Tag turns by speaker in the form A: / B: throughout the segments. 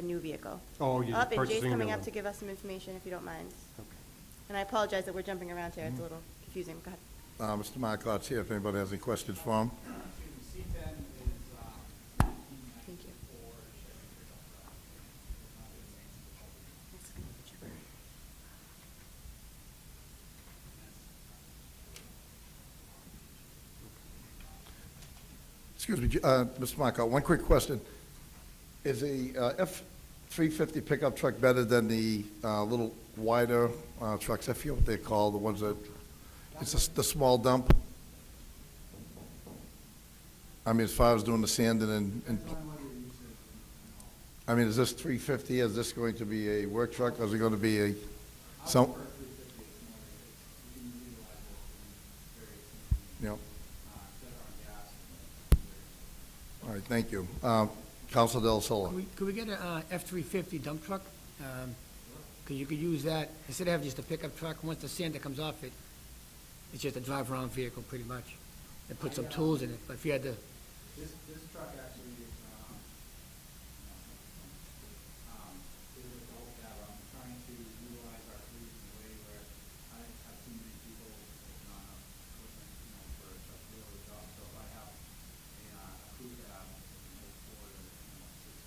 A: a new vehicle.
B: Oh, you're
A: Up, and Jay's
B: purchasing a new
A: coming up
B: one.
A: to give us some information, if you don't mind.
B: Okay. Mm-hmm.
A: And I apologize that we're jumping around here, it's a little confusing, go ahead.
C: Uh, Mr. Mycott's here if anybody has any questions for him.
D: Excuse me, C10 is, uh,
A: Thank you.
D: for Chevy Cruze. Not the same.
C: Excuse me, J- uh, Mr. Mycott, one quick question. Is the uh, F-350 pickup truck better than the uh, little wider uh, trucks? I forget what they're called, the ones that, it's the s- the small dump? I mean, as far as doing the sanding and, and- I mean, is this 350, is this going to be a work truck, or is it going to be a, some, you know? All right, thank you. Uh, Counsel Del Sola.
E: Could we- Could we get a uh, F-350 dump truck? Because you could use that, instead of having just a pickup truck, once the sander comes off it, it's just a drive-around vehicle, pretty much. It puts some tools in it, but if you had to,
D: This, this truck actually is, um, um, it was a whole battle. I'm trying to utilize our fleet in a way where I have too many people, it's not enough equipment, you know, for a truck to do the job. So if I have a, uh, a crew cab, you know, four, or, you know, six,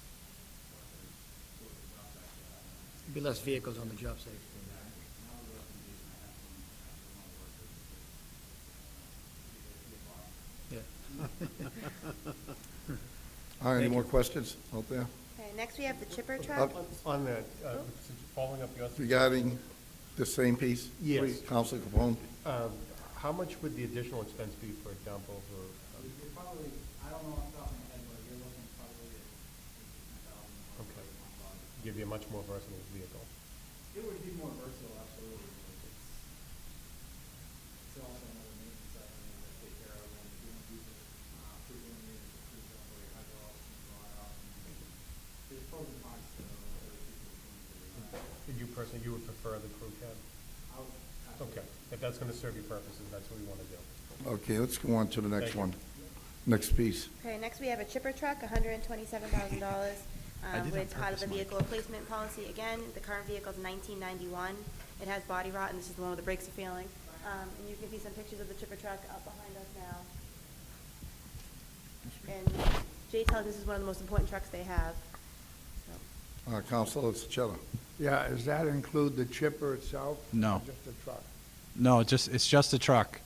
D: four, or, four, or, job that, uh,
E: be less vehicles on the job site.
D: now we're looking to, I have some, I have some more workers. but, you know, it's a big box.
E: Yeah.
C: All right, any more questions out there
A: Okay, next we have the chipper
C: Uh,
A: truck.
B: On that, uh, following up your,
C: regarding the same piece?
B: Yes.
C: Please, Counsel Capone?
B: um, how much would the additional expense be for a dump over? um,
D: You're probably, I don't know off the top of my head, but you're looking probably at eighteen thousand.
B: Okay. Give you a much more versatile vehicle.
D: It would be more versatile, absolutely. but It's it's also another maintenance item that I take care of when you don't use it, uh, frequently, it's a cruise up or your hydraulics and all that. There's pros and cons to other people's things that we have.
B: Did you personally, you would prefer the crew cab?
D: I would have to-
B: Okay, if that's gonna serve your purposes, that's what we wanna do.
C: Okay, let's go on to the next
B: Thank you.
C: one. Next piece.
A: Okay, next we have a chipper truck, hundred and twenty-seven thousand dollars, um, with out of the vehicle replacement policy. Again, the current vehicle's nineteen ninety-one, it has body rot, and this is the one where the brakes are failing. Um, and you can see some pictures of the chipper truck up behind us now. And Jay tells us this is one of the most important trucks they have, so.
C: Uh, Counsel Sicetta.
F: Yeah, does that include the chipper itself?
G: No.
F: Or Just the truck,
G: No, it's just, it's just a truck,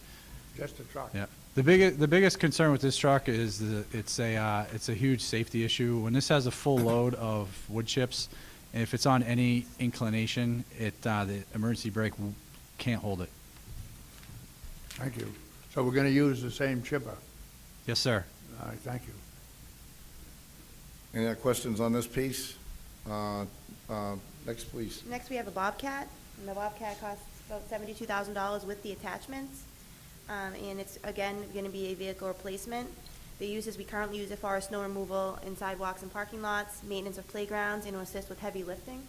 F: just the truck?
G: yeah. The biggest, the biggest concern with this truck is the, it's a, uh, it's a huge safety issue. When this has a full load of wood chips, and if it's on any inclination, it, uh, the emergency brake w- can't hold it.
F: Thank you. So we're gonna use the same chipper?
G: Yes, sir.
F: All right, thank you.
C: Any other questions on this piece? Uh, uh, Next, please.
A: Next, we have a Bobcat, and the Bobcat costs about seventy-two thousand dollars with the attachments. Um, and it's, again, gonna be a vehicle replacement. The uses we currently use it for are snow removal in sidewalks and parking lots, maintenance of playgrounds, and to assist with heavy lifting.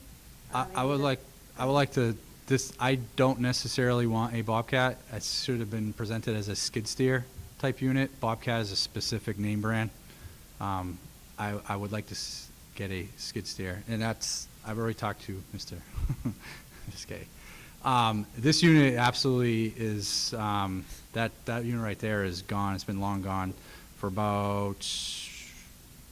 G: I,
A: Um,
G: I would like, I would like to, this, I don't necessarily want a Bobcat. It should have been presented as a skid steer type unit. Bobcat is a specific name brand. Um, I, I would like to s- get a skid steer, and that's, I've already talked to Mr., just kidding. Um, this unit absolutely is, um, that, that unit right there is gone. It's been long gone for about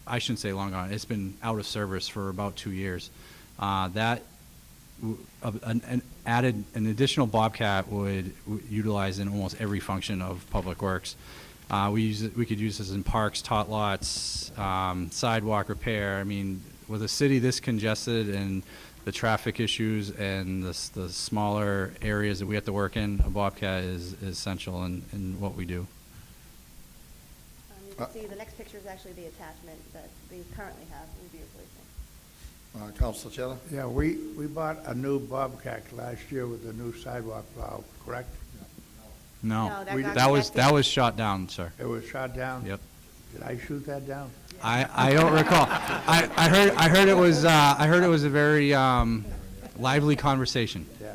G: I shouldn't say long gone. It's been out of service for about two years. Uh, that w- of- an, an added an additional Bobcat would w- utilize in almost every function of Public Works. Uh, we use it, we could use this in parks, tot lots, um, sidewalk repair. I mean, with a city this congested and the traffic issues and the, s- the smaller areas that we have to work in, a Bobcat is, is essential in, in what we do.
A: Um, You
G: uh,
A: can see, the next picture is actually the attachment that they currently have, we'll be replacing.
C: Uh, Counsel Sicetta?
F: Yeah, we, we bought a new Bobcat last year with a new sidewalk plow, correct?
A: No,
G: No,
A: that We- got
G: that was, that
A: rejected.
G: was shot down, sir.
F: It was shot down?
G: Yep.
F: Did I shoot that down?
G: I, I don't recall. I, I heard I heard it was uh, I heard it was a very um, lively conversation.
F: Yeah.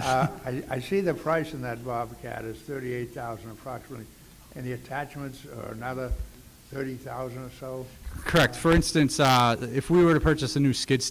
F: Uh, I, I see the price in that Bobcat is thirty-eight thousand approximately, and the attachments are another thirty thousand or so?
G: Correct. For instance, uh, if we were to purchase a new skid steer